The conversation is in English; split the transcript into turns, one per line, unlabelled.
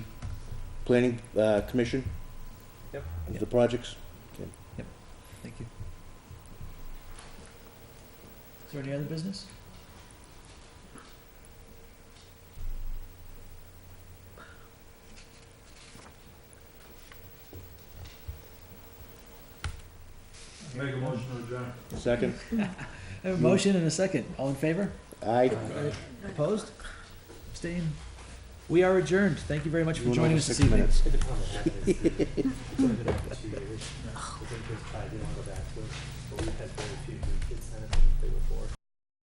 planning, uh, commission?
Yep.
Of the projects?
Thank you. Is there any other business?
Make a motion to adjourn.
Second?
I have a motion and a second. All in favor?
Aye.
Opposed? Abstained? We are adjourned. Thank you very much
You
for
went
joining
over
us this
six
evening.
minutes.
It depends on what happens. It's only been open two years. The thing is, I didn't want to go back to it, but we've had very few new kids sign up for the before.